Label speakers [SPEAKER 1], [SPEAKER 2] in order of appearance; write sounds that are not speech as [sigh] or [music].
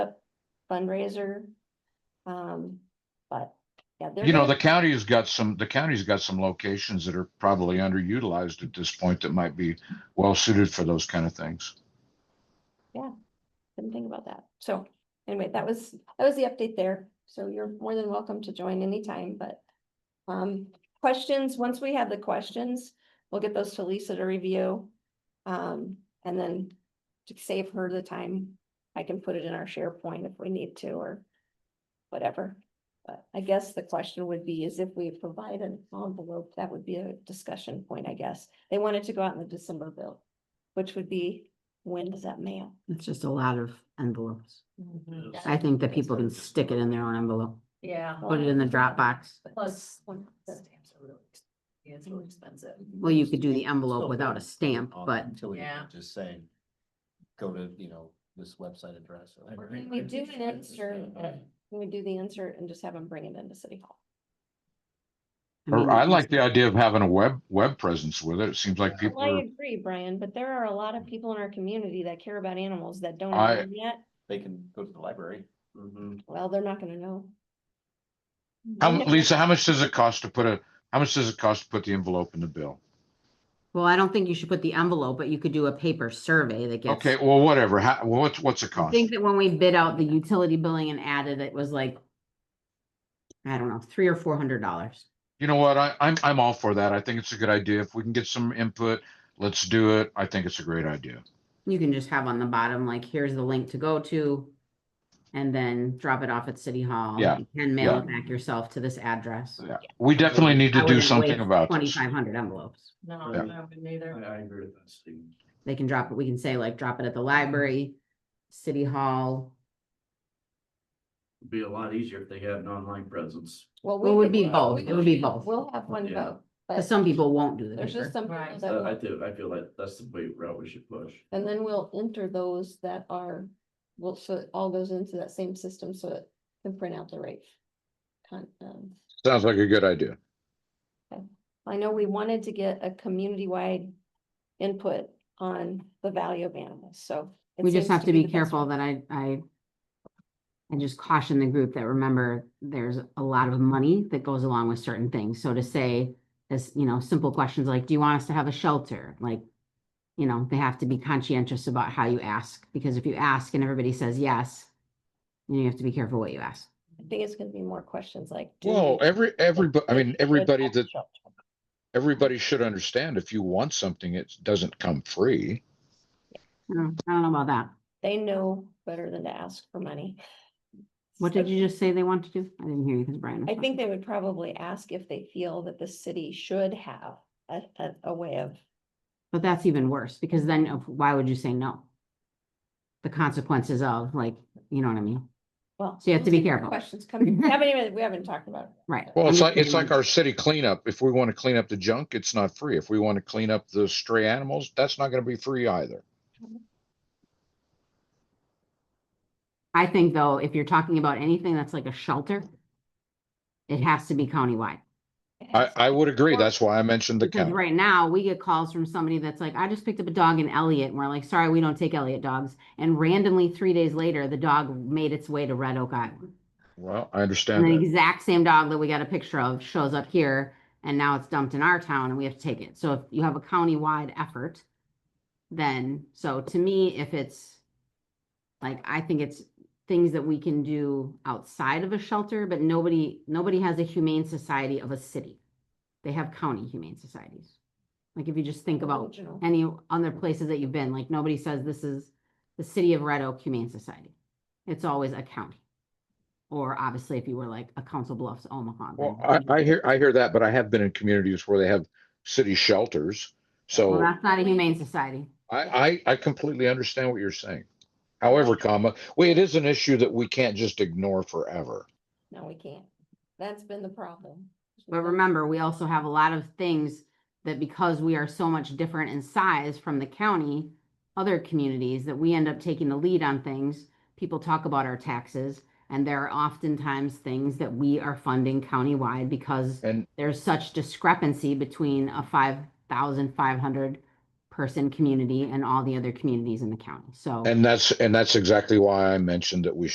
[SPEAKER 1] fundraiser. Um, but, yeah. they're
[SPEAKER 2] You know, the
[SPEAKER 1] gonna-
[SPEAKER 2] county has got some, the county's got some locations that are probably underutilized at this point that might be well suited for those kind of things.
[SPEAKER 1] Didn't think about that. So anyway, that was, that was the update there. So you're more than welcome to join anytime, but. Um, questions, once we have the questions, we'll get those to Lisa to review. Um, and then to save her the time, I can put it in our SharePoint if we need to or whatever. But I guess the question would be is if we provide an envelope, that would be a discussion point, I guess. They wanted to go out in the December bill, which would be, when does that mail?
[SPEAKER 3] It's just a lot of envelopes.
[SPEAKER 4] Mhm.
[SPEAKER 3] I think that people can stick it in their own envelope,
[SPEAKER 4] Yeah.
[SPEAKER 3] put it in the Dropbox.
[SPEAKER 4] Plus, one, the stamps are really, ex- yeah, it's really expensive.
[SPEAKER 3] Well, you could do the envelope without a stamp, but
[SPEAKER 5] Until you
[SPEAKER 4] Yeah.
[SPEAKER 5] just say, go to, you know, this website address. or whatever.
[SPEAKER 1] Can we do an insert, can we do the insert and just have them bring it into City Hall?
[SPEAKER 3] I mean,
[SPEAKER 2] Or I
[SPEAKER 3] it's-
[SPEAKER 2] like the idea of having a web, web presence with it. It seems like
[SPEAKER 5] Yeah.
[SPEAKER 2] people
[SPEAKER 1] Well, I
[SPEAKER 2] are,
[SPEAKER 1] agree, Brian, but there are a lot of people in our community that care about animals that don't
[SPEAKER 2] I-
[SPEAKER 1] have them yet.
[SPEAKER 5] They can go to the library. Mm-hmm.
[SPEAKER 1] Well, they're not gonna know.
[SPEAKER 2] how, Lisa, how much does it cost to put a, how much does it cost to put the envelope in the bill?
[SPEAKER 3] Well, I don't think you should put the envelope, but you could do a paper survey that gets.
[SPEAKER 2] Okay, well, whatever. How, what's, what's it
[SPEAKER 3] I
[SPEAKER 2] cost?
[SPEAKER 3] think that when we bid out the utility billing and added, it was like, I don't know, three or four hundred dollars.
[SPEAKER 2] You know what? I, I'm, I'm all for that. I think it's a good idea. If we can get some input, let's do it. I think it's a great idea.
[SPEAKER 3] You can just have on the bottom, like, here's the link to go to. And then drop it off at City Hall.
[SPEAKER 2] Yeah,
[SPEAKER 3] You can mail it back yourself to this address.
[SPEAKER 2] Yeah. We definitely need to do something about this.
[SPEAKER 3] Twenty-five hundred envelopes.
[SPEAKER 4] No,
[SPEAKER 2] Yeah.
[SPEAKER 4] I wouldn't either.
[SPEAKER 5] agree with that, Steve.
[SPEAKER 3] They can drop it, we can say like, drop it at
[SPEAKER 1] Mm-hmm.
[SPEAKER 3] the library, city hall.
[SPEAKER 6] Be a lot easier if they had an online presence.
[SPEAKER 1] Well,
[SPEAKER 3] It would
[SPEAKER 1] could-
[SPEAKER 3] be both. It would be both.
[SPEAKER 1] We'll have one
[SPEAKER 6] Yeah.
[SPEAKER 1] vote,
[SPEAKER 3] 'Cause
[SPEAKER 1] but
[SPEAKER 3] some people won't do the
[SPEAKER 1] there's just
[SPEAKER 3] paper.
[SPEAKER 1] some people
[SPEAKER 4] Right.
[SPEAKER 1] that
[SPEAKER 6] I
[SPEAKER 1] won't.
[SPEAKER 6] do, I feel like that's the way route we should push.
[SPEAKER 1] And then we'll enter those that are, well, so it all goes into that same system, so it can print out the right. Con, um,
[SPEAKER 2] Sounds like a good idea.
[SPEAKER 1] I know we wanted to get a community-wide input on the value of animals, so. it
[SPEAKER 3] We just
[SPEAKER 1] seems
[SPEAKER 3] have to be
[SPEAKER 1] the best
[SPEAKER 3] careful that I, I. I just caution the group that remember, there's a lot of money that goes along with certain things, so to say. As, you know, simple questions like, do you want us to have a shelter, like? You know, they have to be conscientious about how you ask, because if you ask and everybody says yes. You have to be careful what you ask.
[SPEAKER 1] I think it's gonna be more questions like. do you
[SPEAKER 2] Well, every, everybody, I mean,
[SPEAKER 1] should
[SPEAKER 2] everybody
[SPEAKER 1] have
[SPEAKER 2] that,
[SPEAKER 1] children?
[SPEAKER 2] everybody should understand if you want something, it doesn't come free.
[SPEAKER 3] I don't I don't know about that.
[SPEAKER 1] They know better than to ask for money.
[SPEAKER 3] What
[SPEAKER 1] So
[SPEAKER 3] did you just say they want to do? I didn't hear you because Brian.
[SPEAKER 1] I
[SPEAKER 3] was talking.
[SPEAKER 1] think they would probably ask if they feel that the city should have a, a, a way of,
[SPEAKER 3] But that's even worse, because then if- why would you say no? The consequences of, like, you know what I mean?
[SPEAKER 1] well.
[SPEAKER 3] So you have to be
[SPEAKER 1] those are
[SPEAKER 3] careful.
[SPEAKER 1] Questions coming,
[SPEAKER 3] [laughs]
[SPEAKER 1] we haven't even, we haven't talked about. it.
[SPEAKER 3] Right.
[SPEAKER 2] Well,
[SPEAKER 3] I'm
[SPEAKER 2] it's
[SPEAKER 3] just
[SPEAKER 2] like, it's
[SPEAKER 3] saying,
[SPEAKER 2] like our city cleanup. If we want to clean up the junk, it's not free. If we want to clean up the stray animals, that's not going to be free either.
[SPEAKER 3] I think though, if you're talking about anything that's like a shelter, it has to be countywide.
[SPEAKER 1] It
[SPEAKER 2] I,
[SPEAKER 1] has-
[SPEAKER 2] I would agree. That's why I mentioned the
[SPEAKER 3] Because
[SPEAKER 2] county.
[SPEAKER 3] right now, we get calls from somebody that's like, I just picked up a dog in Elliott, and we're like, sorry, we don't take Elliott dogs. And randomly, three days later, the dog made its way to Red Oak Island.
[SPEAKER 2] Well, I
[SPEAKER 3] And
[SPEAKER 2] understand
[SPEAKER 3] the
[SPEAKER 2] that.
[SPEAKER 3] exact same dog that we got a picture of shows up here and now it's dumped in our town and we have to take it. So if you have a county-wide effort, then, so to me, if it's like, I think it's things that we can do outside of a shelter, but nobody, nobody has a humane society of a city. They have county humane societies. Like if you just think about
[SPEAKER 1] Regional.
[SPEAKER 3] any other places that you've been, like nobody says this is the city of Red Oak Humane Society. It's always a county. Or obviously, if you were like a Council Bluffs Omaha.
[SPEAKER 2] Well,
[SPEAKER 3] then-
[SPEAKER 2] I, I hear, I hear that, but I have been in communities where they have city shelters.
[SPEAKER 3] Well,
[SPEAKER 2] So
[SPEAKER 3] that's not a humane society.
[SPEAKER 2] I, I, I completely understand what you're saying. However, comma, well, it is an issue that we can't just ignore forever.
[SPEAKER 1] No, we can't. That's been the problem.
[SPEAKER 3] But remember, we also have a lot of things that because we are so much different in size from the county, other communities, that we end up taking the lead on things. People talk about our taxes, and there are oftentimes things that we are funding countywide because
[SPEAKER 2] And
[SPEAKER 3] there's such discrepancy between a five thousand five hundred person community and all the other communities in the county, so.
[SPEAKER 2] And that's, and that's exactly why I mentioned that we